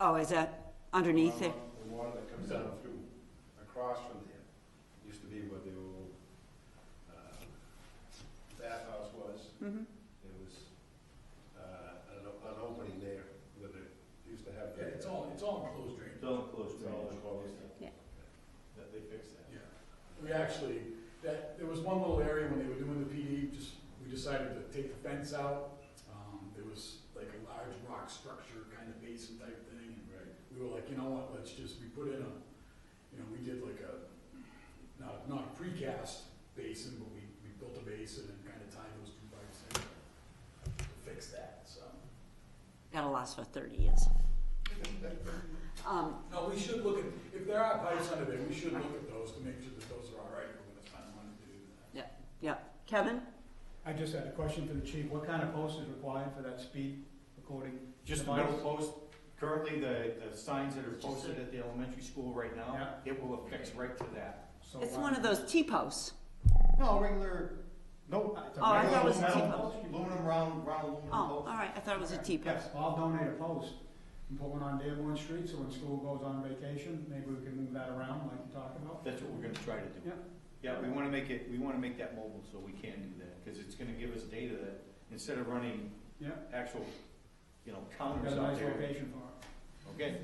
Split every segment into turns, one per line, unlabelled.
Oh, is that underneath it?
The water that comes down through, across from there, used to be where the old, um, bathhouse was.
Mhm.
There was, uh, an, o- an opening there where they used to have.
Yeah,
the-
it's all, it's all enclosed drainage.
It's all enclosed
It's all
drainage.
enclosed.
Yeah.
That they fixed that.
Yeah. We actually, that, there was one little area when they were doing the PD, just, we decided to take the fence out. Um, there was like a large rock structure, kind of basin type thing, and
Right.
we were like, you know what, let's just, we put in a, you know, we did like a, not, not a precast basin, but we, we built a basin and kind of tied those two pipes in to fix that, so.
That'll last for thirty years. Um,
No, we should look at, if there are pipes under there, we should look at those to make sure that those are all right, we're gonna find one to do that.
yeah, yeah. Kevin?
I just had a question for the chief. What kind of post is required for that speed recording?
Just the middle post, currently the, the signs that are posted at the elementary school right now, it will affix right to that.
So,
It's
uh,
one of those T-posts.
No, regular, no, it's a
Oh, I
regular
thought it was a
metal
T-post.
post, aluminum round, round aluminum
Oh, all
post.
right, I thought it was a T-post.
Yes.
I'll donate a post and put one on Dearborn Street, so when school goes on vacation, maybe we can move that around like you talked about.
That's what we're gonna try to do.
Yeah.
Yeah, we wanna make it, we wanna make that mobile so we can do that, cause it's gonna give us data that, instead of running
Yeah.
actual, you know,
Got
counters
a
out
nice
there,
location for
okay?
it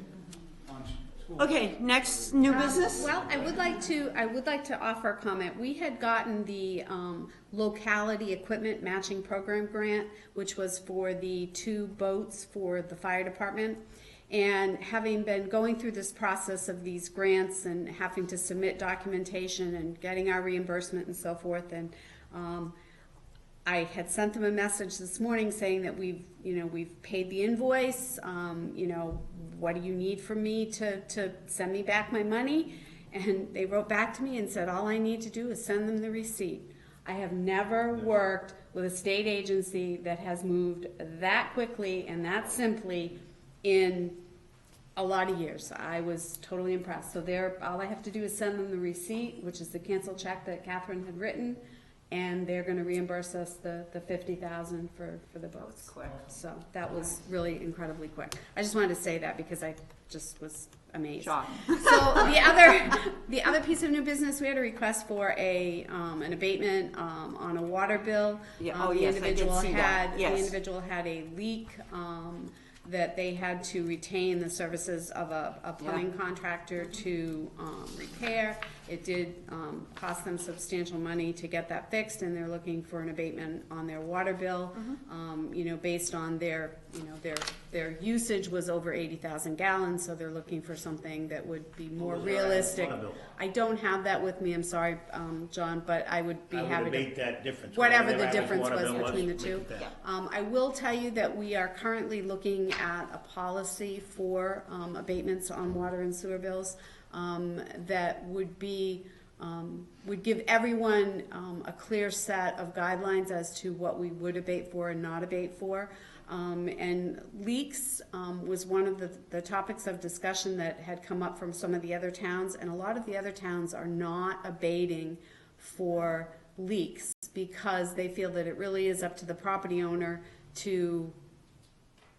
on s- school.
Okay, next new
Um,
business?
Well, I would like to, I would like to offer a comment. We had gotten the um, locality equipment matching program grant, which was for the two boats for the fire department. And having been going through this process of these grants and having to submit documentation and getting our reimbursement and so forth, and um, I had sent them a message this morning saying that we've, you know, we've paid the invoice, um, you know, what do you need from me to, to send me back my money? And they wrote back to me and said, all I need to do is send them the receipt. I have never worked with a state agency that has moved that quickly and that simply in a lot of years. I was totally impressed. So they're, all I have to do is send them the receipt, which is the canceled check that Catherine had written, and they're gonna reimburse us the, the fifty thousand for, for the boats.
Quick.
So that was really incredibly quick. I just wanted to say that because I just was amazed.
Shock.
So the other, the other piece of new business, we had a request for a, um, an abatement, um, on a water bill.
Yeah,
Um,
oh,
the
yes, I did
individual
see that,
had-
yes.
The individual had a leak, um, that they had to retain the services of a, a plumbing contractor to, um, repair. It did, um, cost them substantial money to get that fixed, and they're looking for an abatement on their water bill. Um, you know, based on their, you know, their, their usage was over eighty thousand gallons, so they're looking for something that would be more realistic. I don't have that with me, I'm sorry, um, John, but I would be
I would
happy to
abate that difference.
whatever the
their average
difference
water
was
bill
between the
make
two.
it that.
Um, I will tell you that we are currently looking at a policy for, um, abatements on water and sewer bills, um, that would be, um, would give everyone, um, a clear set of guidelines as to what we would abate for and not abate for. Um, and leaks, um, was one of the, the topics of discussion that had come up from some of the other towns, and a lot of the other towns are not abating for leaks because they feel that it really is up to the property owner to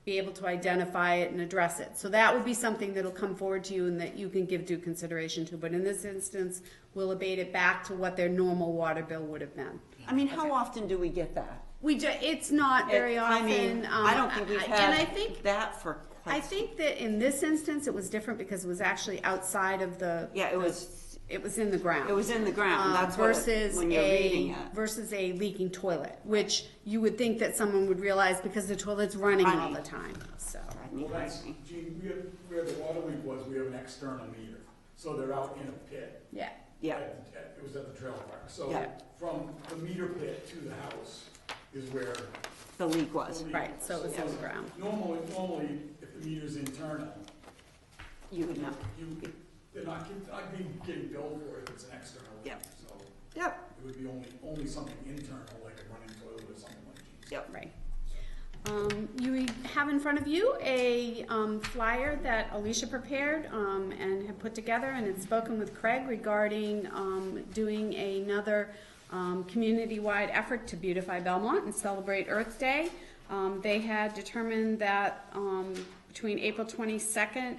be able to identify it and address it. So that would be something that'll come forward to you and that you can give due consideration to. But in this instance, we'll abate it back to what their normal water bill would have been.
I mean, how often do we get that?
We ju, it's not very
It-
often.
I mean,
um,
I don't think we've
I- And I
had
think,
that for quite.
I
some-
think that in this instance, it was different because it was actually outside of the.
Yeah, it was,
It was in the ground.
it was in the ground,
um,
that's what, it-
versus
when you're reading
a,
it.
versus a leaking toilet, which you would think that someone would realize because the toilet's running all
Running.
the time, so.
I
Well,
mean,
that's,
I-
Gene, we have, where the water leak was, we have an external meter, so they're out in a pit.
Yeah,
Yeah,
At- at- It was at the trail park, so
Yeah.
from the meter pit to the house is where.
the leak
the
was,
leak
Right,
was.
so it was underground.
Normally, normally, if the meter's internal,
you would know,
you, they're not, get- not being, getting billed for it if it's an external leak,
Yeah.
so
yep,
it would be only, only something internal, like a running toilet or something like that.
yep.
right. Um, you have in front of you a, um, flyer that Alicia prepared, um, and had put together and had spoken with Craig regarding, um, doing another, um, community-wide effort to beautify Belmont and celebrate Earth Day. Um, they had determined that, um, between April twenty-second